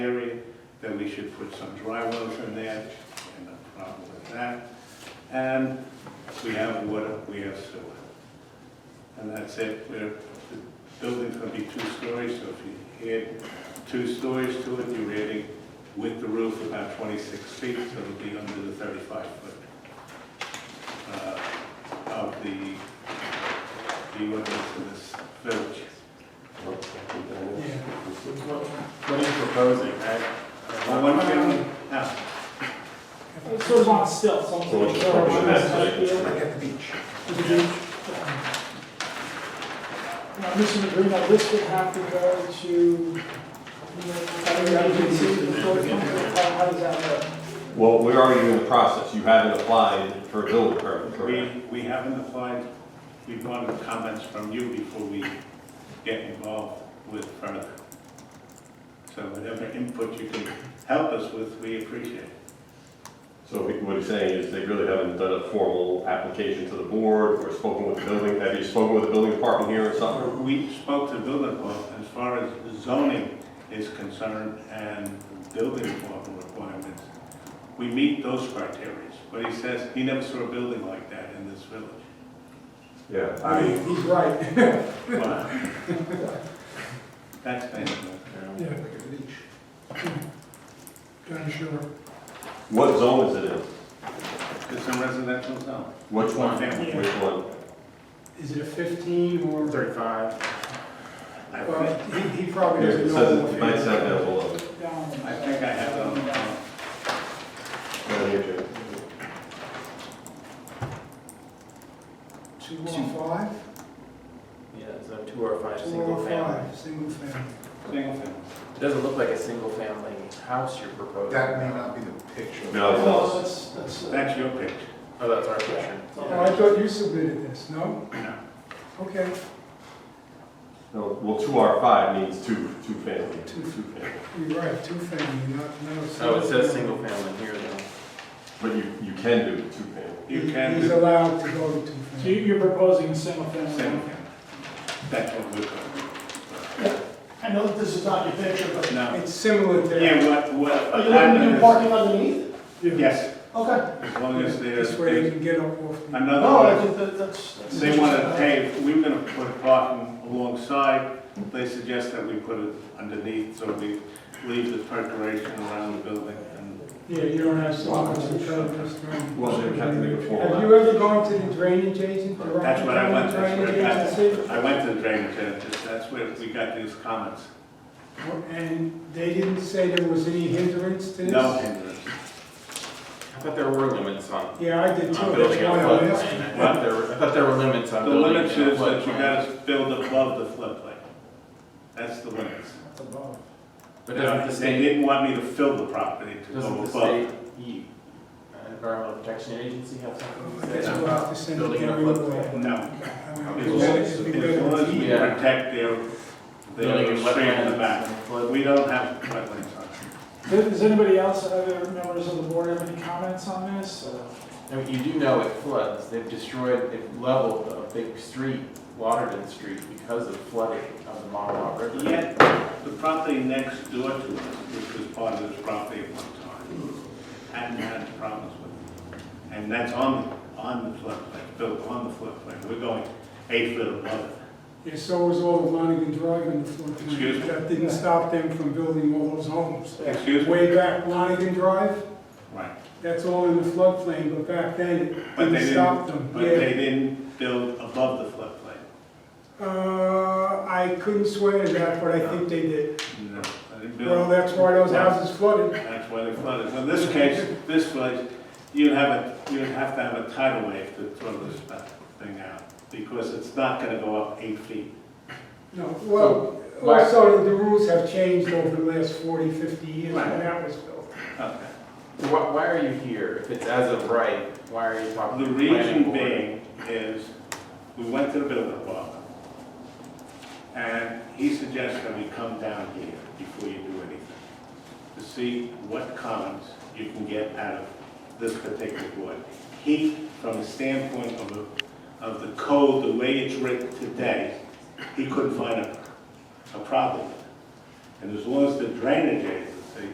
we should put some dry wells in there, and no problem with that. And we have water, we have sewer. And that's it, we're, the building's gonna be two stories, so if you add two stories to it, you're adding with the roof about twenty-six feet, so it'll be under the thirty-five foot uh, of the, the ordinance in this village. What are you proposing? Well, one family, now, It's sort of on stilts, so So what's it's the sort of on purpose this of side that? here. Like at the beach. to the beach. Now, Mr. Negrino, this would have to go to, you know, the agency, the court, how how does that work? Well, we're already in the process, you haven't applied for a building permit, correct? we, we haven't applied, we wanted comments from you before we get involved with further. So whatever input you can help us with, we appreciate. So we- what he's saying is they really haven't done a formal application to the board or spoken with the building, have you spoken with the building department here or something? We spoke to building department as far as zoning is concerned and building department requirements. We meet those criteria, but he says he never saw a building like that in this village. Yeah. I mean, he's right. Wow. That's management. Yeah, like at the beach. Darn sure. What zone is it in? It's a residential zone. Which One one? family. Which one? Is it a fifteen or? Thirty-five. I Well, think- he, he Here, probably It doesn't know. says it's nine seven down below. I think I have um, them. Down here, Jim. Two one five, Yeah, it's a two or five two single oh family. five, single family. Single family. It doesn't look like a single family house you're proposing. That may not be the picture. Oh, No, it's Well, not. that's, that's, uh, That's your picture. Oh, that's our picture. oh, I thought you submitted this, no? No. Okay, No, well, two R five means two, two family. Two. family. you're right, two family, not, no. So it family. says single family here though. But you, you can do two family. You He- can He's do allowed to go to two So family. you- you're proposing a single single family? family. That's what we're going I know that this is not your picture, but, to. No. It's similar to, Yeah, what, what. are you looking to do parking underneath? Yes, Okay. as long as this way you there's can get up off the. another No, I one. think that that's. that's They want to interesting. pave, we we're going to put parking alongside. They suggest that we put it underneath, so we leave the percolation around the building and Yeah, you don't have so much to cover this room. Well, they would have to make a formal. Have you ever gone to the drainage agent? the Rockland That's what I went to, that's Drainage where I got- Agency? I went to the drainage, and that's where we got these comments. And they didn't say there was any hindrance to this? No hindrance. I thought there were limits on, Yeah, I did too. on building That's a why I floodplain. asked. I thought there were, I thought there were limits on The building. limit in a is that you floodplain. gotta build above the floodplain. That's the limits. But doesn't the They state, didn't want me to fill the property to doesn't go the above. state, E, uh, Environmental Protection Agency have something to That's say? what I have to send it Building a everywhere. No. I mean, As it'd be long better- as it'd be as long better as to we eat. Yeah. protect their, Building their and stream in the wetlands back. and flood- We don't have wetlands on it. Does does anybody else, other members of the board have any comments on this? Uh, I mean, you do know it floods, they've destroyed, they've leveled a big street, Waterden Street, because of flooding of the Mawa River. Yet, the property next door to us, which was part of this property at one time, hadn't had problems with it. And that's on, on the floodplain, built on the floodplain. We're going eight foot above it. Yeah, so was all of Lonigan Drive in the floodplain. Excuse me? That didn't stop them from building all those homes. Excuse me? Way back Lonigan Drive, Right. that's all in the floodplain, but back then, it But they didn't stop didn't, them. but Yeah. they didn't build above the floodplain. Uh, I couldn't swear to that, but I think they did. No. They didn't Well, build, that's why those houses flooded. that's why they flooded. So in this case, this place, you'd have a, you'd have to have a tidal wave to throw this uh, thing out, because it's not gonna go up eight feet. No, well, why- also, the rules have changed over the last 40, 50 years when Right. that was built. Okay. Why, why are you here? If it's as of right, why are you talking The to the planning reason board? being is, we went to the building department, and he suggested that we come down here before you do anything, to see what comments you can get out of this particular board. He, from the standpoint of, the- of the code, the way it's written today, he couldn't find a, a problem. with it. And as long as the drainage agent